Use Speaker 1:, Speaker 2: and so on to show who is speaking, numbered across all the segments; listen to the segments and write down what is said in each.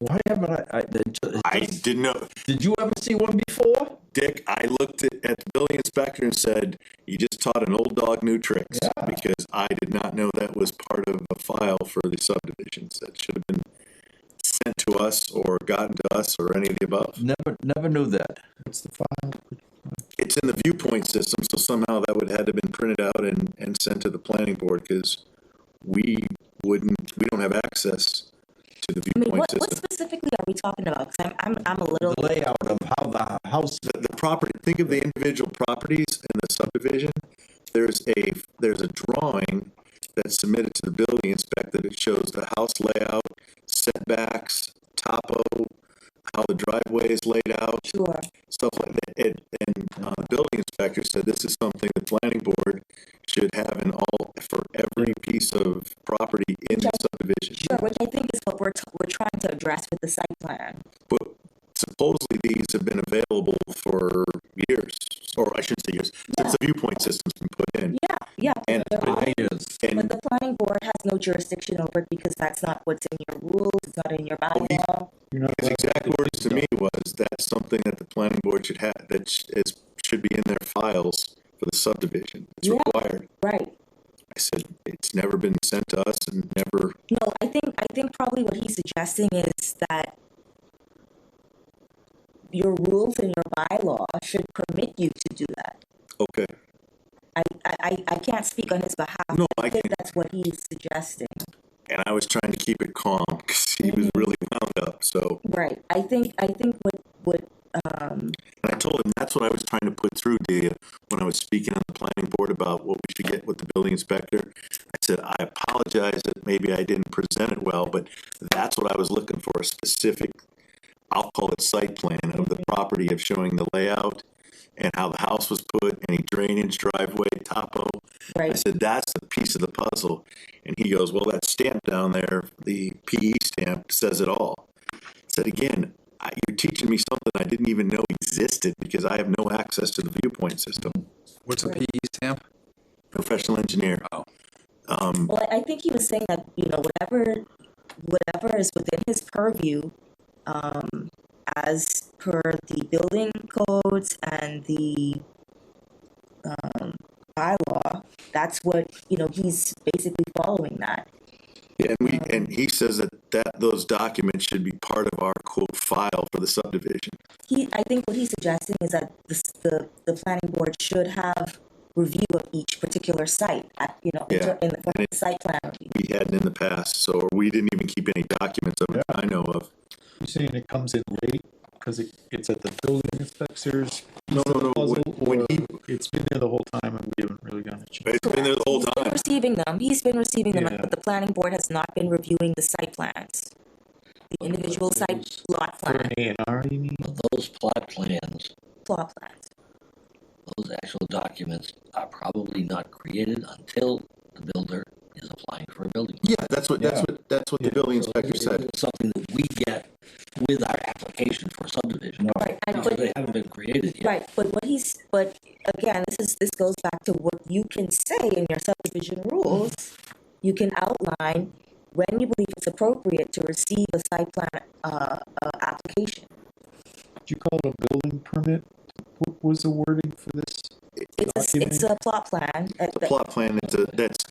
Speaker 1: Why haven't I? I, the- ju-
Speaker 2: I didn't know.
Speaker 1: did you ever see one before?
Speaker 2: Dick, I looked at, at the building inspector and said, you just taught an old dog new tricks. Because I did not know that was part of a file for the subdivisions that should have been sent to us or gotten to us or any of the above.
Speaker 1: Never, never knew that.
Speaker 3: What's the file?
Speaker 2: It's in the viewpoint system, so somehow that would had to been printed out and, and sent to the planning board because we wouldn't, we don't have access to the
Speaker 4: I mean,
Speaker 2: viewpoint
Speaker 4: what, what
Speaker 2: system.
Speaker 4: specifically are we talking about? Because I'm, I'm, I'm a little,
Speaker 1: The layout of how the house.
Speaker 2: The, the property, think of the individual properties in the subdivision. There's a, there's a drawing that's submitted to the building inspector that shows the house layout, setbacks, topo, how the driveway is laid out.
Speaker 4: sure.
Speaker 2: stuff like that. And, and uh, the building inspector said this is something the planning board should have in all for every piece of property in the subdivision.
Speaker 4: Sure, which I think is what we're, t- we're trying to address with the site plan.
Speaker 2: But supposedly these have been available for years, or I shouldn't say years, since the viewpoint system's been put in.
Speaker 4: Yeah, yeah.
Speaker 2: And it's
Speaker 4: they're all-
Speaker 2: been years.
Speaker 4: But
Speaker 2: And
Speaker 4: the planning board has no jurisdiction over it because that's not what's in your rules, it's not in your bylaw.
Speaker 3: You're not
Speaker 2: his exact words to me was that's something that the planning board should have that sh- is should be in their files for the subdivision. It's
Speaker 4: Yeah.
Speaker 2: required.
Speaker 4: Right.
Speaker 2: I said it's never been sent to us and never
Speaker 4: No, I think, I think probably what he's suggesting is that your rules and your bylaw should permit you to do that.
Speaker 2: okay.
Speaker 4: I, I, I- I can't speak on his behalf.
Speaker 2: No,
Speaker 4: but
Speaker 2: I
Speaker 4: think
Speaker 2: can't.
Speaker 4: That's what he's suggesting.
Speaker 2: and I was trying to keep it calm because he was really wound up. So,
Speaker 4: Right. I think, I think what, what, um,
Speaker 2: and I told him that's what I was trying to put through to you when I was speaking on the planning board about what we should get with the building inspector. I said, I apologize that maybe I didn't present it well, but that's what I was looking for a specific, I'll call it site plan of the property of showing the layout and how the house was put, any drainage, driveway, topo. I
Speaker 4: right.
Speaker 2: said, that's the piece of the puzzle. And he goes, well, that stamp down there, the PE stamp says it all. I said, again, I, you're teaching me something I didn't even know existed because I have no access to the viewpoint system.
Speaker 5: What's a PE
Speaker 1: E
Speaker 5: stamp?
Speaker 2: Professional engineer.
Speaker 5: Oh.
Speaker 2: Um,
Speaker 4: Well, I I think he was saying that, you know, whatever, whatever is within his purview, um, as per the building codes and the, um, bylaw, that's what, you know, he's basically following that.
Speaker 2: and we, and he says that, that those documents should be part of our quote file for the subdivision.
Speaker 4: He, I think what he's suggesting is that the, s- the, the planning board should have review of each particular site, at, you know, in
Speaker 2: Yeah.
Speaker 4: ter- in, the-
Speaker 2: And it-
Speaker 4: the site plan review.
Speaker 2: We hadn't in the past, so we didn't even keep any documents of it I know of.
Speaker 3: You're saying it comes in late because it, it's at the building inspectors?
Speaker 2: No, no, no,
Speaker 3: Puzzle,
Speaker 2: when- when
Speaker 3: or
Speaker 2: he-
Speaker 3: it's been there the whole time and we haven't really gotten a chance.
Speaker 2: It's been there the whole
Speaker 4: He's been
Speaker 2: time.
Speaker 4: receiving them, he's been receiving them,
Speaker 3: Yeah.
Speaker 4: but the planning board has not been reviewing the site plans. The individual site lot
Speaker 3: For
Speaker 4: plan,
Speaker 3: an A and R, you mean?
Speaker 6: But those plot plans,
Speaker 4: plot plans.
Speaker 6: those actual documents are probably not created until the builder is applying for a building.
Speaker 2: Yeah, that's what, that's
Speaker 3: Yeah.
Speaker 2: what, that's what the
Speaker 3: Yeah.
Speaker 2: building inspector
Speaker 6: It's
Speaker 2: said.
Speaker 6: something that we get with our application for subdivision.
Speaker 4: Right, and
Speaker 6: Because
Speaker 4: but,
Speaker 6: they haven't been created yet.
Speaker 4: right, but what he's, but again, this is, this goes back to what you can say in your subdivision rules. You can outline when you believe it's appropriate to receive a site plan, uh, uh, application.
Speaker 3: Did you call it a building permit? What was the wording for this?
Speaker 4: It's a, it's a plot plan. uh,
Speaker 2: The
Speaker 4: that-
Speaker 2: plot plan is a, that's,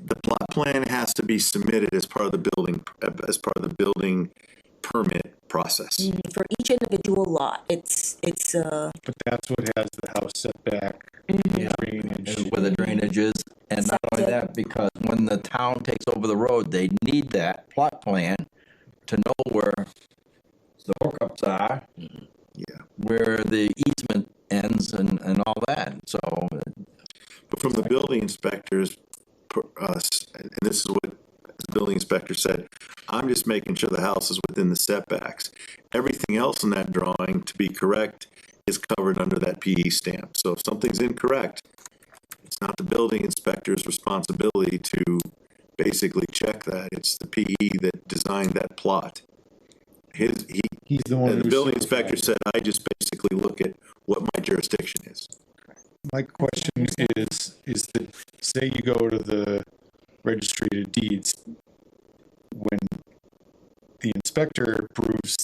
Speaker 2: the plot plan has to be submitted as part of the building, as part of the building permit process.
Speaker 4: mm, For each individual lot, it's, it's, uh,
Speaker 3: But that's what has the house setback, drainage.
Speaker 1: where the drainage is. And not only that, because when the town takes over the road, they need that plot plan to know where the hookups are,
Speaker 2: Yeah.
Speaker 1: where the easement ends and, and all that. So
Speaker 2: But from the building inspectors, per- uh, s- and this is what the building inspector said, I'm just making sure the house is within the setbacks. Everything else in that drawing, to be correct, is covered under that PE stamp. So if something's incorrect, it's not the building inspector's responsibility to basically check that. It's the PE that designed that plot. His, he,
Speaker 3: He's the one.
Speaker 2: and the
Speaker 3: who
Speaker 2: building
Speaker 3: certified
Speaker 2: inspector
Speaker 3: it.
Speaker 2: said, I just basically look at what my jurisdiction is.
Speaker 3: My question is, is that, say you go to the registry of deeds, when the inspector approves